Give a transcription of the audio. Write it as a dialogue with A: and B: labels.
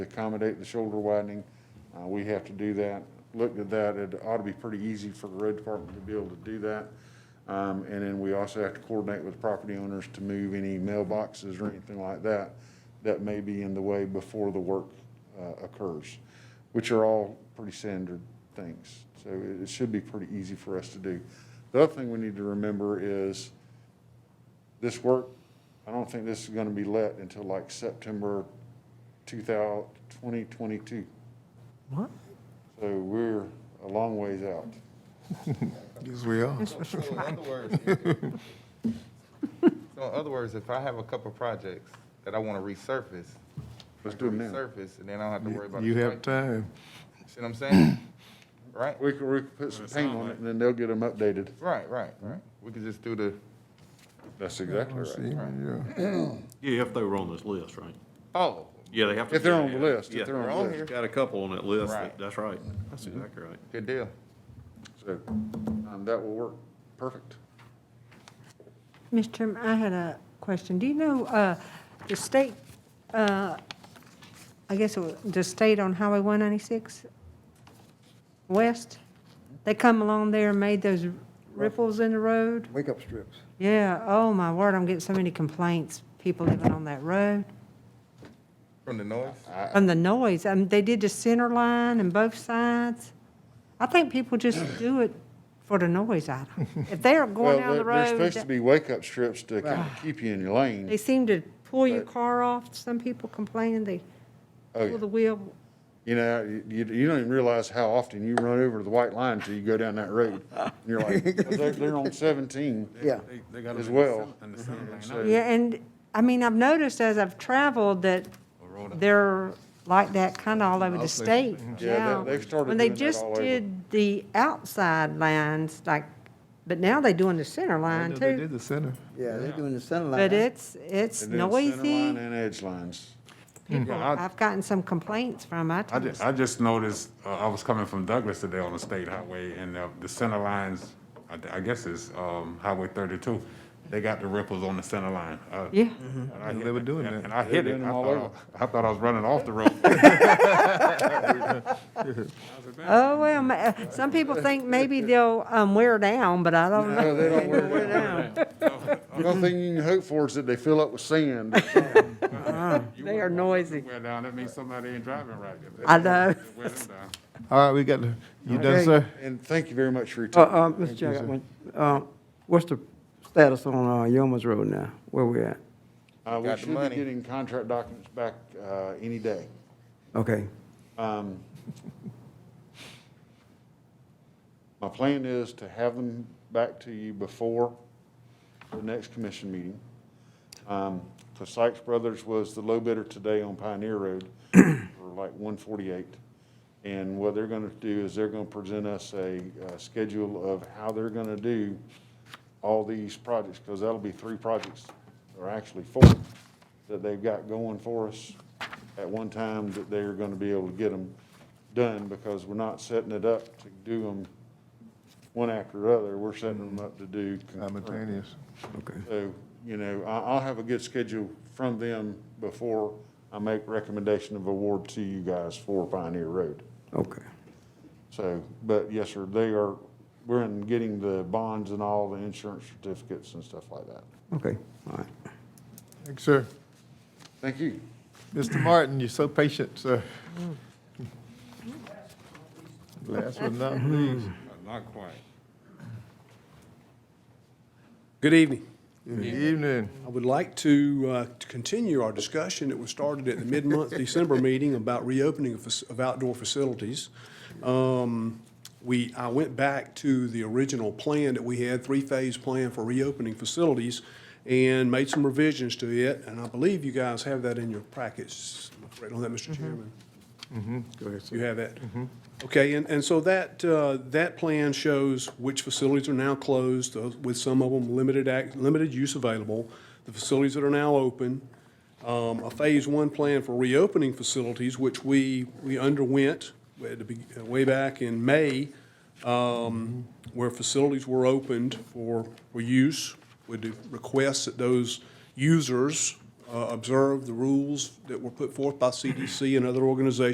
A: accommodate the shoulder widening. Uh, we have to do that. Looked at that, it ought to be pretty easy for the road department to be able to do that. Um, and then we also have to coordinate with property owners to move any mailboxes or anything like that that may be in the way before the work, uh, occurs, which are all pretty standard things. So it, it should be pretty easy for us to do. The other thing we need to remember is this work, I don't think this is gonna be let until like September 2000 2022.
B: What?
A: So we're a long ways out.
C: Yes, we are.
D: So in other words, if- so in other words, if I have a couple projects that I want to resurface.
A: Let's do them now.
D: Resurface, and then I don't have to worry about.
C: You
D: the
C: have
D: strike.
C: time.
D: See what I'm saying? Right,
A: We could, we could put some paint on it and then they'll get them updated.
D: right, right, right. We could just do the,
A: That's exactly
C: See,
A: right.
C: yeah.
E: Yeah, if they were on this list, right?
D: oh,
E: Yeah, they have to.
A: If they're
E: yeah,
A: on the
E: yeah,
A: list, if
E: yeah.
A: they're on
D: They're
A: the
D: on
A: list.
D: here. Mm-hmm.
E: Got a couple on that list.
D: Right.
E: That's right. That's exactly right.
D: good deal.
A: So, um, that will work perfect.
B: Mr. Chairman, I had a question. Do you know, uh, the state, uh, I guess, it was the state on Highway 196 West, they come along there and made those ripples in the road?
F: Wake-up strips.
B: Yeah, oh my word, I'm getting so many complaints, people living on that road,
D: From the noise,
B: from the noise. I mean, they did the center line and both sides. I think people just do it for the noise item. If they're
A: Well,
B: going down
A: there-
B: the
A: there's
B: road.
A: supposed to be wake-up strips to kind of keep you in your
B: They
A: lane.
B: seem to pull your
A: But-
B: car off. Some people complaining they
A: Oh,
B: pull
A: yeah.
B: the wheel.
A: You know, you, you don't even realize how often you run over the white line until you go down that road. And you're like, well, they're, they're on seventeen.
F: Yeah.
A: As well. So-
B: Yeah, and, I mean, I've noticed as I've traveled that they're like that kind of all over the state
A: Yeah, they-
B: now.
A: they've started
B: When they
A: doing that
B: just
A: all over.
B: did the outside lines, like, but now they doing the center line
C: They
B: too.
C: did the center.
F: Yeah, they're doing the center line.
B: But it's, it's
A: And then center line
B: noisy.
A: and edge lines.
B: People,
G: Yeah, I-
B: I've gotten some complaints from, I
G: I
B: tell
G: just, I just noticed, uh, I was coming from Douglas today on the state highway and uh, the center lines, I, th- I guess it's, um, Highway thirty-two. They got the ripples on the center line. Uh,
B: Yeah.
G: and I hit
C: They were
G: it,
C: doing
G: and-
C: that.
G: And I
A: Mm-hmm. They were
G: hit
A: doing
G: it.
A: them
G: I
A: all over.
G: thought, I- I thought I was running off the road.
B: Oh, well, ma- uh, some people think maybe they'll, um, wear down, but I don't know.
A: No, they don't wear
B: Wear down.
A: The only thing you can hope for is that they fill up with sand.
B: They are noisy.
G: Wear down, that means somebody ain't driving right.
B: I know.
G: Wear them down.
C: All right, we got, the- you done,
F: Okay.
C: sir?
A: And thank you very much for your
F: Uh,
A: time.
F: uh, Mr. Chair, I got one. Uh, what's the status on, uh, Yoma's Road now? Where we at?
A: Uh, we
D: Got the
A: should be
D: money.
A: getting contract documents back, uh, any day.
F: Okay,
A: Um, My plan is to have them back to you before the next commission meeting. Um, The Sykes Brothers was the low bidder today on Pioneer Road for like one forty-eight. And what they're gonna do is they're gonna present us a, uh schedule of how they're gonna do all these projects, because that'll be three projects, or actually four, that they've got going for us at one time, that they're gonna be able to get them done, because we're not setting it up to do them one after the other, we're setting them up to do concurrent.
C: Simultaneous.
F: okay.
A: So, you know, I, I'll have a good schedule from them before I make recommendation of award to you guys for Pioneer Road.
F: Okay.
A: So, but yes, sir, they are, we're in getting the bonds and all the insurance certificates and stuff like that.
F: Okay, all right.
C: Thanks, sir.
A: Thank you.
C: Mr. Martin, you're so patient, sir. Last but not least.
G: Not quite.
H: Good evening.
C: Good evening.
H: I would like to uh, to continue our discussion that was started at the mid-month December meeting about reopening of fac- of outdoor facilities. Um, We, I went back to the original plan that we had, three-phase plan for reopening facilities, and made some revisions to it, and I believe you guys have that in your packets. Am I correct on that, Mr. Chairman?
C: Mm-hmm. Go ahead, sir. Mm-hmm.
H: You have that? Okay, and, and so that, uh, that plan shows which facilities are now closed, uh, with some of them limited act, limited use available, the facilities that are now open, um, a phase one plan for reopening facilities, which we, we underwent at the be- way back in May, um, where facilities were opened for, for use, with the request that those users um, uh, observe the rules that were put forth by CDC and other organizations